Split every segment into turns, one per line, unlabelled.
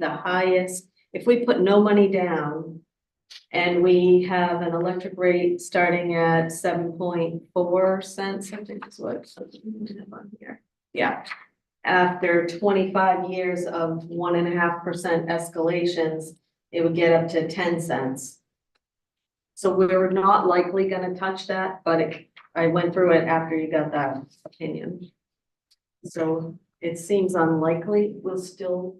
the highest, if we put no money down. And we have an electric rate starting at seven point four cents, I think is what, something we have on here, yeah. After twenty-five years of one and a half percent escalations, it would get up to ten cents. So we're not likely gonna touch that, but it- I went through it after you got that opinion. So it seems unlikely we'll still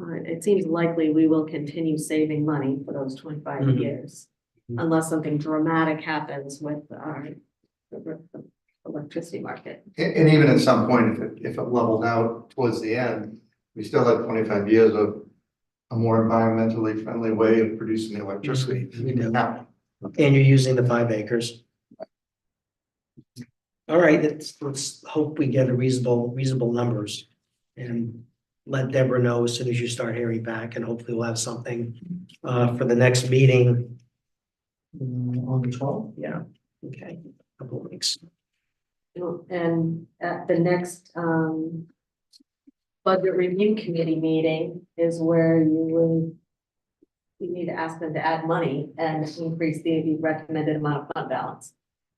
uh, it seems likely we will continue saving money for those twenty-five
Mhm.
years.
Mhm.
Unless something dramatic happens with our the- the electricity market.
And, and even at some point, if it, if it leveled out towards the end, we still had twenty-five years of a more environmentally friendly way of producing the electricity.
We do.
Now,
And you're using the five acres. All right, let's, let's hope we get a reasonable, reasonable numbers. And let Deborah know as soon as you start hearing back and hopefully we'll have something, uh, for the next meeting. mm, On the twelfth, yeah, okay, couple of weeks.
You know, And at the next um. Budget review committee meeting is where you would. You need to ask them to add money and increase the recommended amount of fund balance.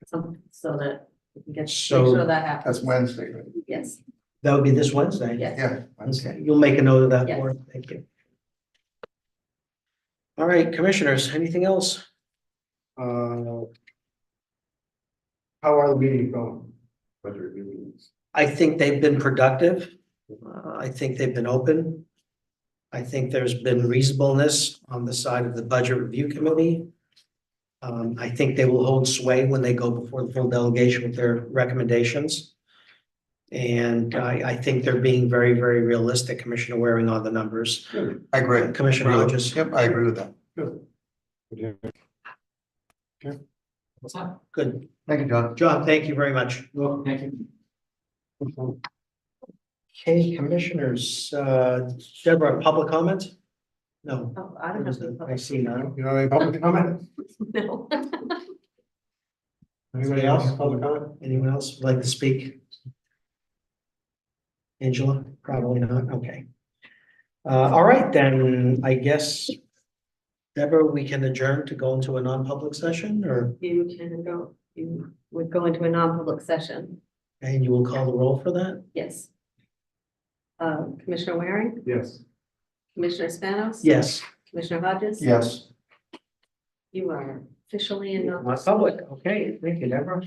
So so that we can get, make
So-
sure that happens.
that's Wednesday, right?
Yes,
That would be this Wednesday?
yes.
Yeah. Wednesday.
Okay, you'll make a note of that,
Yes.
Lauren, thank you. All right, commissioners, anything else?
Uh, How are the meetings going? Budget review meetings.
I think they've been productive. Uh, I think they've been open. I think there's been reasonableness on the side of the Budget Review Committee. Um, I think they will hold sway when they go before the full delegation with their recommendations. And I, I think they're being very, very realistic, Commissioner Waring, on the numbers.
I agree.
Commissioner Hodges.
Yep, I agree with that. Good.
What's up?
Good.
Thank you, John.
John, thank you very much.
Well, thank you.
Okay, Commissioners, uh, Deborah, public comment? No.
Oh, I don't have the
I
public.
see none.
You know, any public comment?
No.
Anybody else? Public comment? Anyone else would like to speak? Angela? Probably not. Okay. Uh, all right, then I guess Deborah, we can adjourn to go into a non-public session or,
You can go, you would go into a non-public session,
and you will call the roll for that?
yes. Uh, Commissioner Waring,
Yes.
Commissioner Spanos?
Yes.
Commissioner Hodges?
Yes.
You are officially in non
Not public. Okay, thank you, Deborah.